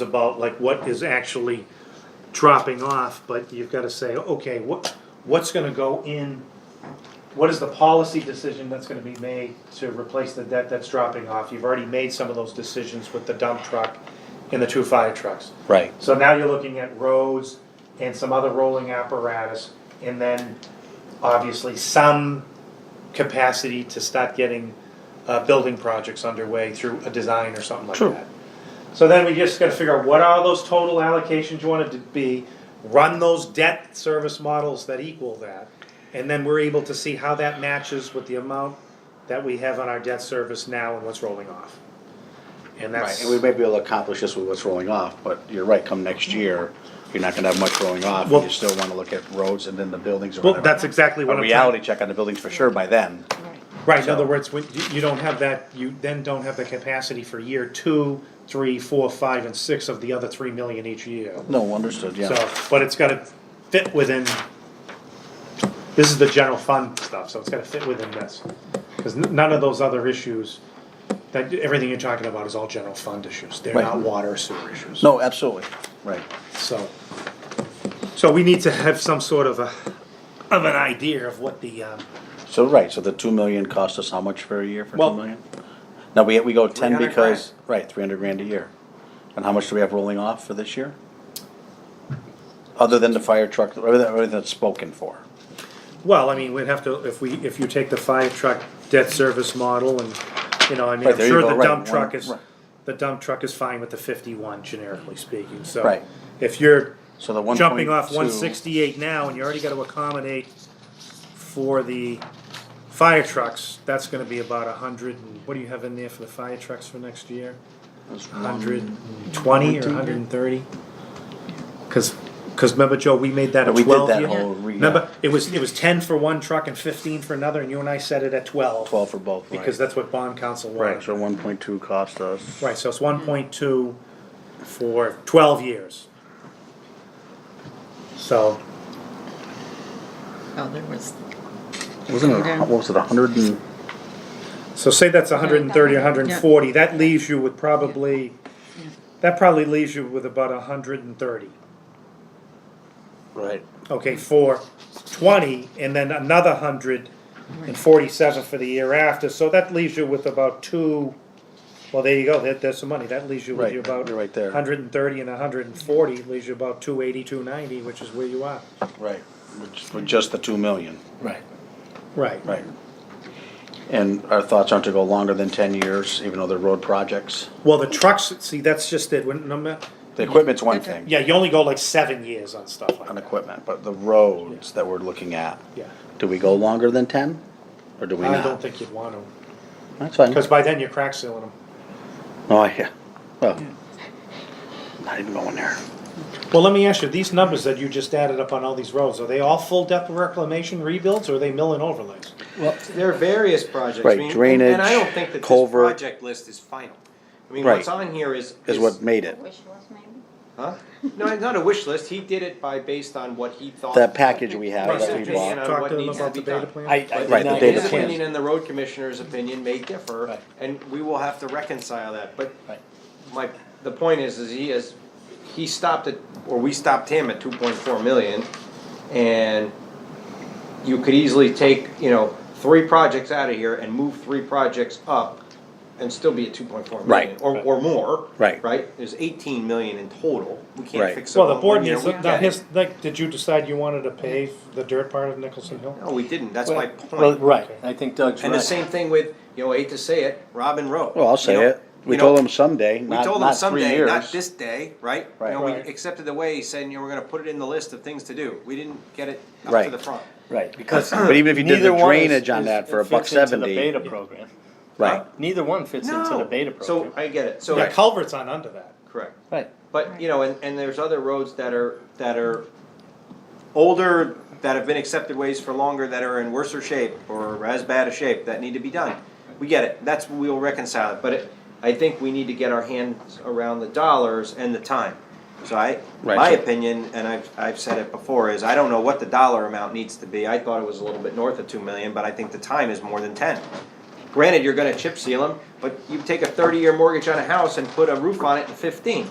about like what is actually dropping off, but you've gotta say, okay, what, what's gonna go in? What is the policy decision that's gonna be made to replace the debt that's dropping off? You've already made some of those decisions with the dump truck and the two fire trucks. Right. So now you're looking at roads and some other rolling apparatus, and then obviously some capacity to start getting uh, building projects underway through a design or something like True. that. So then we just gotta figure out what are those total allocations you want it to be, run those debt service models that equal that. And then we're able to see how that matches with the amount that we have on our debt service now and what's rolling off. And Right, that's, and we may be able to accomplish this with what's rolling off, but you're right, come next year, you're not gonna have much rolling off, and Well- you still wanna look at roads and then the buildings or well, whatever. that's exactly what A I'm trying. reality check on the buildings for sure by then, Right, in So- other words, when, you, you don't have that, you then don't have the capacity for year two, three, four, five, and six of the other three million each year. no, understood, yeah, So, but it's gotta fit within, this is the general fund stuff, so it's gotta fit within this. Cause n- none of those other issues, that, everything you're talking about is all general fund issues, they're Right. not water or sewer issues. no, absolutely, right, So, so we need to have some sort of a, of an idea of what the, um, so, right, so the two million cost us how much for a year for Well- two million? Now, we, we go ten 300 because, right, three hundred grand a year, and how much do we have rolling off for this year? Other than the fire truck, everything, everything that's spoken for, Well, I mean, we'd have to, if we, if you take the five truck debt service model and, you know, I mean, Right, I'm there you sure go, the right, dump one- truck is, right. the dump truck is fine with the fifty-one generically speaking, so. Right. If you're so the one jumping off one sixty-eight now and you already gotta accommodate for the fire trucks, that's gonna be about a hundred and, what do you have in there for the fire trucks for next year? Hundred and twenty or hundred and thirty? Cause, cause remember, Joe, we made that a But we did twelve that year- whole, re- Remember, it was, it was ten for one truck and fifteen for another, and you and I set it at twelve. twelve for both, right? Because that's what bond council Right, wanted. so one point two cost us. Right, so it's one point two for twelve years. So, Oh, there was, Wasn't it, Okay. what was it, a hundred and, so say that's hundred and thirty, hundred and forty, that leaves you with probably, that probably leaves you with about hundred and thirty. right, Okay, for twenty, and then another hundred and forty-seven for the year after, so that leaves you with about two, well, there you go, there, there's some money, that leaves you with Right, you about. you're right there. Hundred and thirty and hundred and forty, leaves you about two eighty, two ninety, which is where you are. right, which, with just the two million, Right. Right. right. And our thoughts aren't to go longer than ten years, even though they're road projects. Well, the trucks, see, that's just it, when, no ma- The equipment's one Okay. thing, yeah, you only go like seven years on stuff like on that, equipment, but the roads that we're looking at, yeah. do we go longer than ten? Or do we I don't not? think you'd want to, That's fine. because by then you're crack sealing them. Oh, yeah, well, not even going there. Well, let me ask you, these numbers that you just added up on all these roads, are they all full depth reclamation rebuilds or are they mill and overlays? There are various projects. I Right, mean, and- drainage, And I don't think that this culvert. project list is final. I mean, Right. what's on here is. Is what made it, wish was maybe? Huh? No, not a wish list. He did it by, based on what he thought. that package we have Right, that we so just bought. on Talk what to them needs to about be the beta done. plan. I, I Right, did the not data His get a plan. opinion chance. and the road commissioner's opinion may differ, Right. and we will have to reconcile that, but Right. my, the point is, is he is, he stopped at, or we stopped him at two point four million, and you could easily take, you know, three projects out of here and move three projects up and still be at two point four million, Right. or, or more. Right. Right, there's eighteen million in total, we Right. can't fix it Well, all the in board one year. needs, We now get it. his, like, did you decide you wanted to pave the dirt part of Nicholson Hill? No, we didn't, that's my Well, point. right, I think Doug's And the right. same thing with, you know, I hate to say it, Robin Road. Well, I'll say You know- it. We you know, told them someday, We not, told them not three someday, years. not this day, right? You Right. know, we Right. accepted the way, saying, you know, we're gonna put it in the list of things to do. We didn't get it up to Right. the front. Right, because. But even if you did the neither one is- drainage on is- that for it a buck fits into the 70. Beta program. Right, Neither one fits into the beta So program. I get it, The so, culvert's on under that. correct. Right. But, you know, and, and there's other roads that are, that are older, that have been accepted ways for longer, that are in worse shape or as bad a shape, that need to be done. We get it, that's, we'll reconcile it, but it- I think we need to get our hands around the dollars and the time. So I, Right, my so- opinion, and I've, I've said it before, is I don't know what the dollar amount needs to be. I thought it was a little bit north of two million, but I think the time is more than ten. Granted, you're gonna chip seal them, but you take a thirty-year mortgage on a house and put a roof on it in fifteen.